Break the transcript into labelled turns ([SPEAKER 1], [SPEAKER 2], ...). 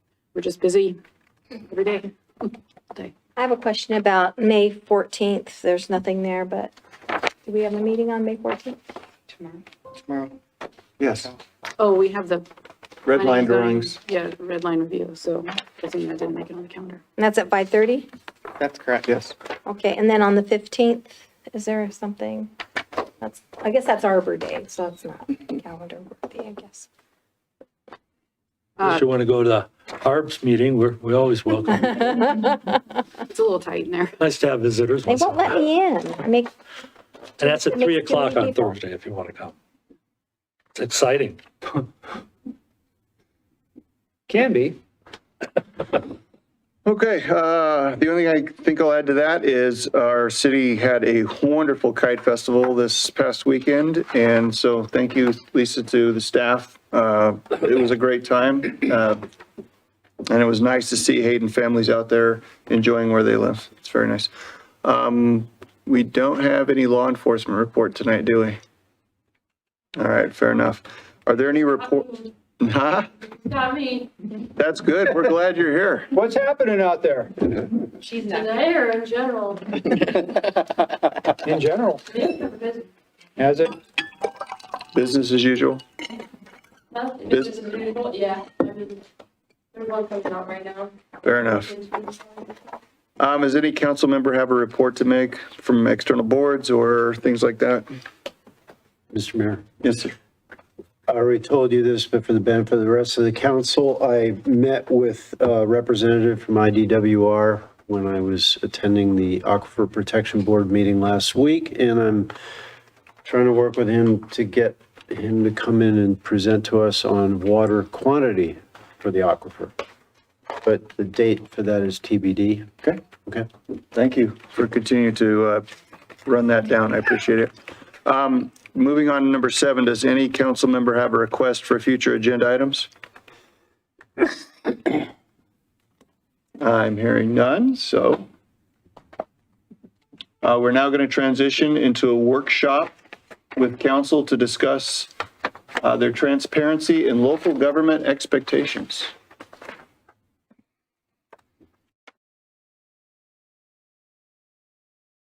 [SPEAKER 1] We're just busy every day.
[SPEAKER 2] I have a question about May 14th. There's nothing there, but do we have a meeting on May 14th?
[SPEAKER 1] Tomorrow.
[SPEAKER 3] tomorrow. Yes,
[SPEAKER 1] Oh, we have the.
[SPEAKER 3] red
[SPEAKER 1] planning zoning-
[SPEAKER 3] line drawings.
[SPEAKER 1] Yeah, red line review, so doesn't mean I didn't make it on the calendar.
[SPEAKER 2] And that's at 5:30?
[SPEAKER 4] That's correct.
[SPEAKER 3] Yes,
[SPEAKER 2] Okay, and then on the 15th, is there something? That's, I guess that's Arbor Day, so that's not calendar worthy, I guess.
[SPEAKER 1] Uh,
[SPEAKER 2] Uh,
[SPEAKER 5] Unless you want to go to the ARBs meeting, we're, we always welcome.
[SPEAKER 1] It's a little tight in there.
[SPEAKER 5] Nice to have visitors.
[SPEAKER 2] They
[SPEAKER 5] once in a
[SPEAKER 2] won't let
[SPEAKER 5] while.
[SPEAKER 2] me in. I make,
[SPEAKER 5] And that's at
[SPEAKER 2] It makes
[SPEAKER 5] 3
[SPEAKER 2] too
[SPEAKER 5] o'clock
[SPEAKER 2] many
[SPEAKER 5] on
[SPEAKER 2] people.
[SPEAKER 5] Thursday if you want to come. It's exciting.
[SPEAKER 4] Can be.
[SPEAKER 3] okay, uh, the only thing I think I'll add to that is our city had a wonderful kite festival this past weekend, and so thank you, Lisa, to the staff. Uh, It was a great time, uh, and it was nice to see Hayden families out there enjoying where they live. It's very nice. Um, We don't have any law enforcement report tonight, do we? All right, fair enough. Are there any report? Huh?
[SPEAKER 6] Not me,
[SPEAKER 3] That's good. We're glad you're here.
[SPEAKER 4] What's happening out there
[SPEAKER 6] today or in general,
[SPEAKER 4] in general?
[SPEAKER 6] nothing,
[SPEAKER 4] Has it?
[SPEAKER 3] Business as usual.
[SPEAKER 6] this is unusual, yeah. I mean, There's one coming out right now.
[SPEAKER 3] Fair enough. Um, does any council member have a report to make from external boards or things like that?
[SPEAKER 7] Mr. Mayor,
[SPEAKER 3] Yes, sir.
[SPEAKER 7] I already told you this, but for the benefit of the rest of the council, I met with a representative from IDWR when I was attending the Aquifer Protection Board meeting last week, and I'm trying to work with him to get him to come in and present to us on water quantity for the aquifer. But the date for that is TBD.
[SPEAKER 3] Okay.
[SPEAKER 7] Okay.
[SPEAKER 3] Thank you for continuing to, uh, run that down. I appreciate it. Um, moving on to number seven, does any council member have a request for future agenda items? I'm hearing none, so. Uh, we're now going to transition into a workshop with council to discuss, uh, their transparency and local government expectations.